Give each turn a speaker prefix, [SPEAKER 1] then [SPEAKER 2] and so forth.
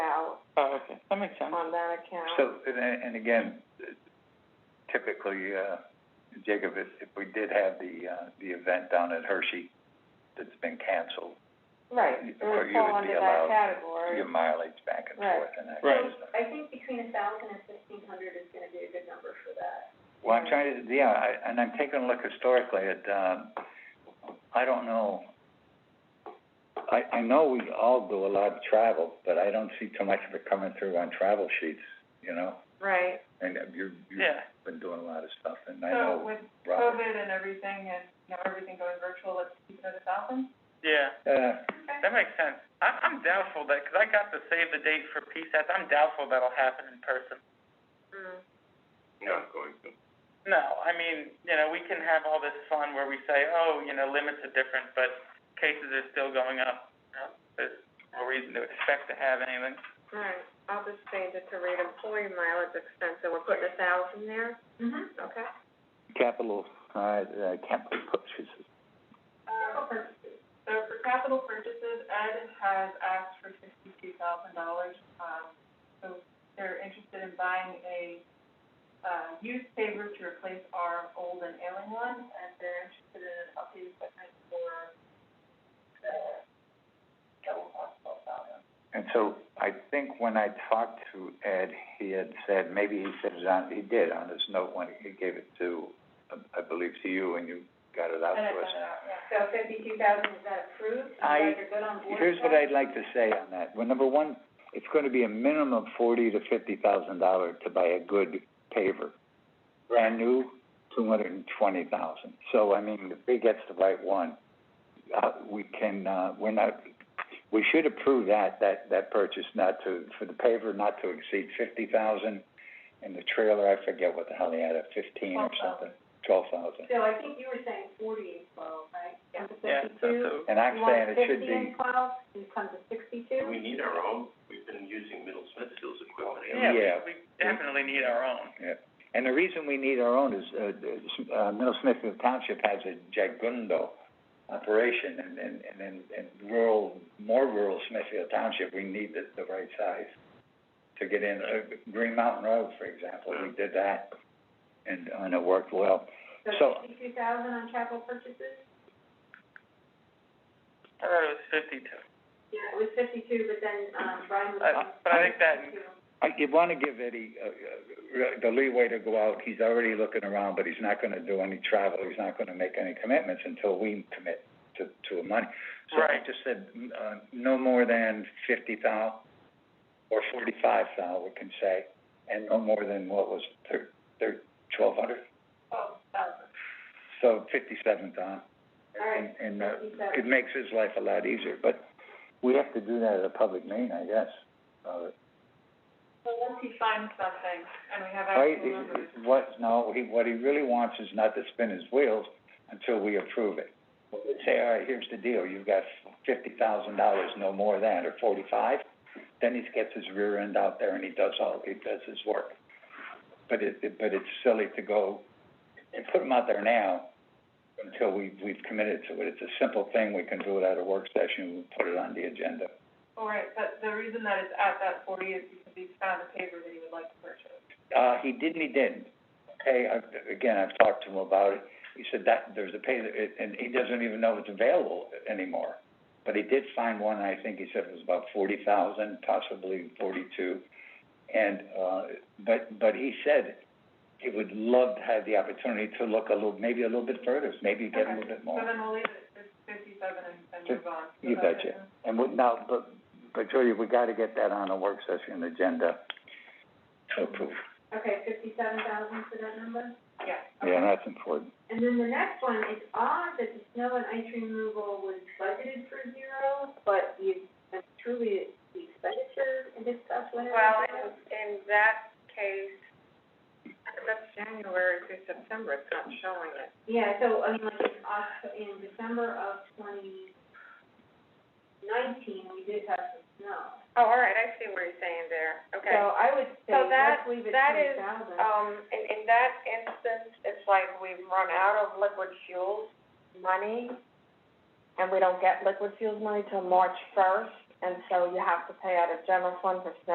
[SPEAKER 1] Oh, That makes sense.
[SPEAKER 2] on that account.
[SPEAKER 3] So, and, and again, typically, uh, Jacob, if, if we did have the, uh, the event down at Hershey that's been canceled,
[SPEAKER 2] Right, it
[SPEAKER 3] you- or
[SPEAKER 2] would
[SPEAKER 3] you
[SPEAKER 2] fall
[SPEAKER 3] would be
[SPEAKER 2] under that
[SPEAKER 3] allowed-
[SPEAKER 2] category.
[SPEAKER 3] your mileage back and
[SPEAKER 2] Right.
[SPEAKER 3] forth and that
[SPEAKER 1] Right.
[SPEAKER 3] kind of stuff.
[SPEAKER 4] I think between a thousand and fifteen hundred is gonna be a good number for that.
[SPEAKER 3] Well, I'm trying to, yeah, I, and I'm taking a look historically at, um, I don't know. I, I know we all do a lot of travel, but I don't see too much of it coming through on travel sheets, you know?
[SPEAKER 2] Right.
[SPEAKER 3] And uh, you're, you've
[SPEAKER 1] Yeah,
[SPEAKER 3] been doing a lot of stuff, and I know, Robert.
[SPEAKER 2] COVID and everything and, you know, everything going virtual, let's keep it at a thousand?
[SPEAKER 1] yeah,
[SPEAKER 3] Uh,
[SPEAKER 1] that makes sense. I'm, I'm doubtful that, 'cause I got the save the date for PSAT, I'm doubtful that'll happen in person.
[SPEAKER 2] Mm-hmm.
[SPEAKER 5] not going to.
[SPEAKER 1] No, I mean, you know, we can have all this fun where we say, oh, you know, limits are different, but cases are still going up. You know, There's no reason to expect to have anything.
[SPEAKER 2] Alright, I'll just change it to rate employee mileage expense, so we're putting a thousand there? Mm-hmm. Okay.
[SPEAKER 3] capital, uh, uh, capital purchases.
[SPEAKER 2] Capital purchases. So for capital purchases, Ed has asked for sixty-two thousand dollars. Um, so they're interested in buying a, uh, used saver to replace our old and ailing one, and they're interested in an updated equipment for the, that will cost twelve thousand.
[SPEAKER 3] And so I think when I talked to Ed, he had said, maybe he said it on, he did on his note when he gave it to, uh, I believe to you, and you got it out to us.
[SPEAKER 4] So fifty-two thousand, is that approved?
[SPEAKER 3] I-
[SPEAKER 4] You guys are good on board with
[SPEAKER 3] Here's what
[SPEAKER 4] that?
[SPEAKER 3] I'd like to say on that. Well, number one, it's gonna be a minimum of forty to fifty thousand dollar to buy a good paver. Brand new, two hundred and twenty thousand. So, I mean, if he gets the right one, uh, we can, uh, we're not, we should approve that, that, that purchase not to, for the paver not to exceed fifty thousand. And the trailer, I forget what the hell he had, a fifteen or something, twelve thousand.
[SPEAKER 4] So I think you were saying forty and twelve, right? Yeah.
[SPEAKER 1] Yeah, so, so,
[SPEAKER 3] And I'm saying it should
[SPEAKER 4] You want fifty and
[SPEAKER 3] be,
[SPEAKER 4] twelve, you come to sixty-two?
[SPEAKER 5] We need our own, we've been using Middle Smithfield's equipment.
[SPEAKER 1] yeah,
[SPEAKER 3] Yeah.
[SPEAKER 1] we, we definitely need our own.
[SPEAKER 3] And the reason we need our own is, uh, uh, uh, Middle Smithfield Township has a jagundo operation, and, and, and in, in rural, more rural Smithfield Township, we need the, the right size to get in. Uh, Green Mountain Road, for example, we did that, and, and it worked well. So-
[SPEAKER 4] fifty-two thousand on capital purchases?
[SPEAKER 1] I thought it was fifty-two.
[SPEAKER 4] Yeah, it was fifty-two, but then, um, Brian was.
[SPEAKER 1] Uh, but I think that,
[SPEAKER 3] I, you wanna give Eddie, uh, uh, the leeway to go out, he's already looking around, but he's not gonna do any travel, he's not gonna make any commitments until we commit to, to a money. So I
[SPEAKER 1] Right.
[SPEAKER 3] just said, mm, uh, no more than fifty thou, or forty-five thou, we can say, and no more than, what was, thir- thir- twelve hundred?
[SPEAKER 4] Twelve thousand.
[SPEAKER 3] So fifty-seven thou.
[SPEAKER 4] All right,
[SPEAKER 3] And, and, uh, it
[SPEAKER 4] 57.
[SPEAKER 3] makes his life a lot easier, but we have to do that at a public meeting, I guess, uh,
[SPEAKER 2] Well, once he finds something and we have
[SPEAKER 3] I, what, no, he, what he really wants is not to spin his wheels until we approve it. Say, all right, here's the deal, you've got fifty thousand dollars, no more than, or forty-five, then he gets his rear end out there and he does all, he does his work. But it, it- but it's silly to go and put him out there now until we, we've committed to it. It's a simple thing, we can do it at a work session, we put it on the agenda.
[SPEAKER 2] All right, but the reason that it's at that forty is because he's found a paper that he would like to purchase.
[SPEAKER 3] Uh, he didn't, he didn't. Okay, I, again, I've talked to him about it. He said that, there's a pay, it- and he doesn't even know it's available anymore. But he did find one, I think he said it was about forty thousand, possibly forty-two. And, uh, but, but he said he would love to have the opportunity to look a little, maybe a little bit further, maybe get a little bit
[SPEAKER 2] So
[SPEAKER 3] more.
[SPEAKER 2] then we'll leave it at fifty-seven and, and move on.
[SPEAKER 3] You betcha. And we, now, but, but Julia, we gotta get that on a work session agenda to approve.
[SPEAKER 4] Okay, fifty-seven thousand for that number?
[SPEAKER 2] Yeah.
[SPEAKER 3] Yeah, that's important.
[SPEAKER 4] And then the next one, it's odd that the snow and ice removal was budgeted for zero, but you, that's truly the expenditure and discuss whatever.
[SPEAKER 2] Well, in, in that case, that's January through September, it's not showing it.
[SPEAKER 4] Yeah, so, I mean, like, in Oct- in December of twenty nineteen, we did have some snow.
[SPEAKER 2] Oh, all right, I see what you're saying there,
[SPEAKER 4] So I would say,
[SPEAKER 2] So that-
[SPEAKER 4] let's leave it
[SPEAKER 2] that
[SPEAKER 4] twenty
[SPEAKER 2] is,
[SPEAKER 4] thousand.
[SPEAKER 2] Um, in, in that instance, it's like we've run out of liquid fuels money, and we don't get liquid fuels money till March first, and so you have to pay out of general fund for snow